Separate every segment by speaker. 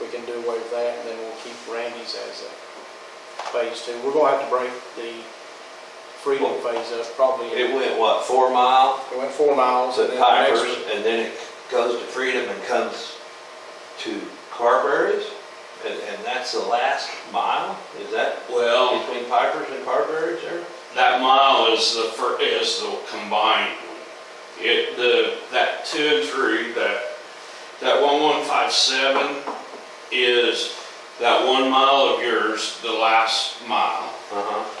Speaker 1: we can do away with that, and then we'll keep Randy's as a phase two. We're gonna have to break the Freedom phase up, probably.
Speaker 2: It went, what, four mile
Speaker 1: It went four miles, and
Speaker 2: to
Speaker 1: then the next
Speaker 2: Pipers, and then it goes to Freedom and comes to Carberry's? And, and that's the last mile? Is that
Speaker 3: Well,
Speaker 2: between Pipers and Carberry's there?
Speaker 3: that mile is the fir, is the combined one. It, the, that two and three, that, that one one five seven is that one mile of yours, the last mile.
Speaker 2: Uh-huh.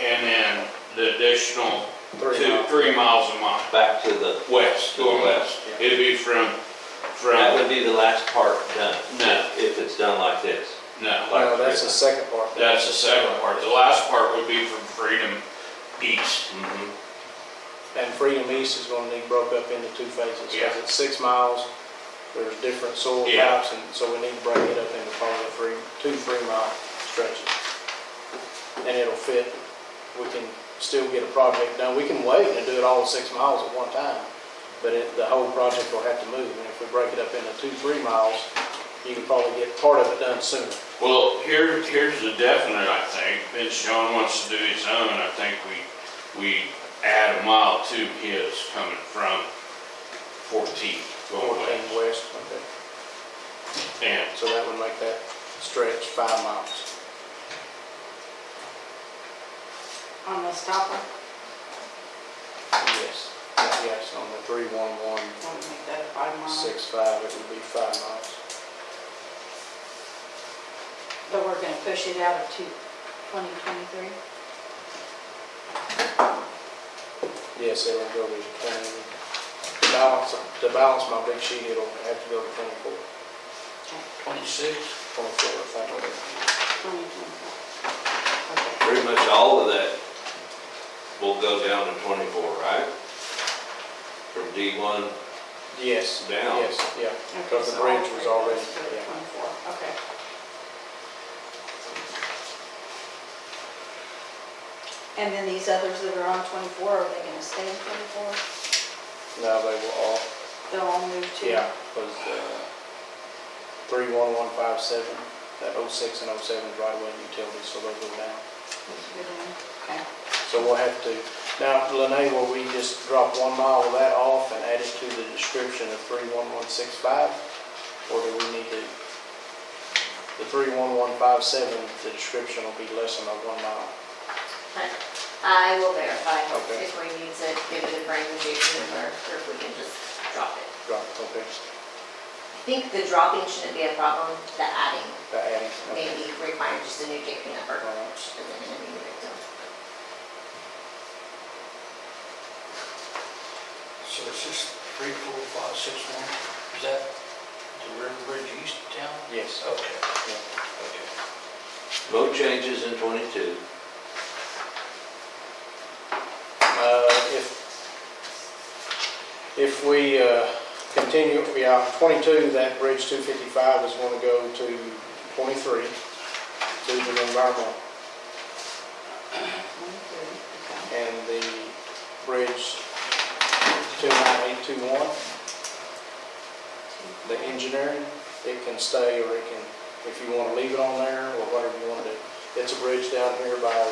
Speaker 3: And then the additional
Speaker 1: three
Speaker 3: two,
Speaker 1: miles.
Speaker 3: three miles a mile,
Speaker 2: Back to the,
Speaker 3: west, going west.
Speaker 1: Yeah.
Speaker 3: It'd be from,
Speaker 2: that
Speaker 3: from,
Speaker 2: would be the last part done.
Speaker 3: No.
Speaker 2: If it's done like this.
Speaker 3: no,
Speaker 1: No, that's the second part.
Speaker 3: that's the second part. The last part would be from Freedom East.
Speaker 2: Mhm.
Speaker 1: Mm-hmm. And Freedom East is gonna need broke up into two phases,
Speaker 3: Yeah.
Speaker 1: because it's six miles, there's different soil
Speaker 3: Yeah.
Speaker 1: types, and so we need to break it up into probably three, two three-mile stretches. And it'll fit, we can still get a project done, we can wait and do it all six miles at one time, but it, the whole project will have to move, and if we break it up into two, three miles, you can probably get part of it done sooner.
Speaker 3: Well, here, here's the definite, I think, since John wants to do his own, I think we, we add a mile to his coming from fourteen going
Speaker 1: Fourteen
Speaker 3: west.
Speaker 1: west, okay,
Speaker 3: And,
Speaker 1: so that would make that stretch five miles.
Speaker 4: On the stopper,
Speaker 1: Yes, yes, on the three one one
Speaker 4: want to make that a five mile,
Speaker 1: six five, it would be five miles.
Speaker 4: but we're gonna push it out of two, twenty twenty-three?
Speaker 1: Yes, it'll go to twenty, to balance, to balance my big sheet, it'll have to go to twenty-four,
Speaker 3: twenty-six?
Speaker 1: twenty-four, if I don't.
Speaker 4: Twenty twenty-four.
Speaker 2: Pretty much all of that will go down to twenty-four, right? From D one
Speaker 1: Yes,
Speaker 2: down.
Speaker 1: yes, yeah, because the bridge was already, yeah.
Speaker 4: Twenty-four, okay. And then these others that are on twenty-four, are they gonna stay in twenty-four?
Speaker 1: Now they will all,
Speaker 4: They'll all move to?
Speaker 1: yeah, was, uh, three one one five seven, that oh six and oh seven is right away utilities, so they'll go down.
Speaker 4: Okay.
Speaker 1: So we'll have to, now, Lene, will we just drop one mile of that off and add it to the description of 31165? Or do we need to, the 31157, the description will be less than a one mile?
Speaker 5: I will verify
Speaker 1: Okay.
Speaker 5: if we need to give it a brand new name or or if we can just drop it.
Speaker 1: Drop, okay,
Speaker 5: I think the dropping shouldn't be a problem, the adding
Speaker 1: the adding,
Speaker 5: may
Speaker 1: okay.
Speaker 5: be required just a new JP number.
Speaker 1: All right.
Speaker 5: And then a new victim.
Speaker 6: So it's just three, four, five, six, one, is that the river bridge east of town?
Speaker 1: Yes,
Speaker 6: Okay,
Speaker 1: yeah.
Speaker 6: okay.
Speaker 2: No changes in twenty-two.
Speaker 1: Uh, If, if we uh, continue, we are 22, that bridge 255 is going to go to 23, to the environmental. And the bridge 29821, the engineering, it can stay or it can, if you want to leave it on there or whatever you want to do. It's a bridge down here by, uh,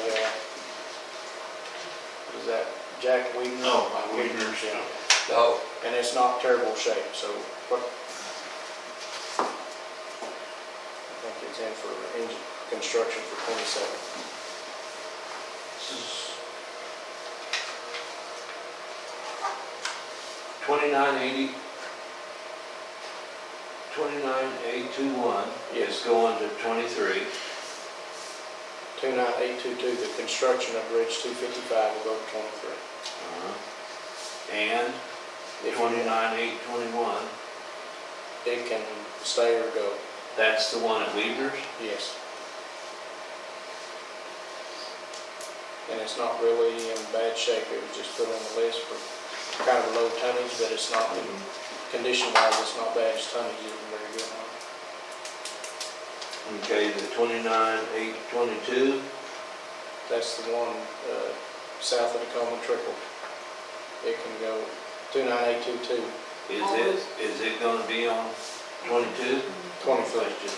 Speaker 1: what is that Jack Weaver?
Speaker 3: No, by Weaver's, yeah.
Speaker 6: Oh,
Speaker 1: And it's not terrible shape, so what? I think it's in for engine construction for 27.
Speaker 2: Twenty-nine eighty, twenty-nine eight two one is going to twenty-three.
Speaker 1: 29822, the construction of Bridge 255 will go to 23.
Speaker 2: And
Speaker 1: If you want,
Speaker 2: twenty-nine eight twenty-one,
Speaker 1: It can stay or go,
Speaker 2: that's the one at Weaver's?
Speaker 1: yes. And it's not really in bad shape, it was just put on the list for kind of low tonnage, but it's not,
Speaker 2: Mm-hmm.
Speaker 1: condition-wise, it's not bad, its tonnage isn't very good on it.
Speaker 2: Okay, the twenty-nine eight twenty-two,
Speaker 1: That's the one uh, south of Tacoma Trickle. It can go 29822.
Speaker 2: is it, is it gonna be on
Speaker 7: Twenty-two?
Speaker 2: twenty-three.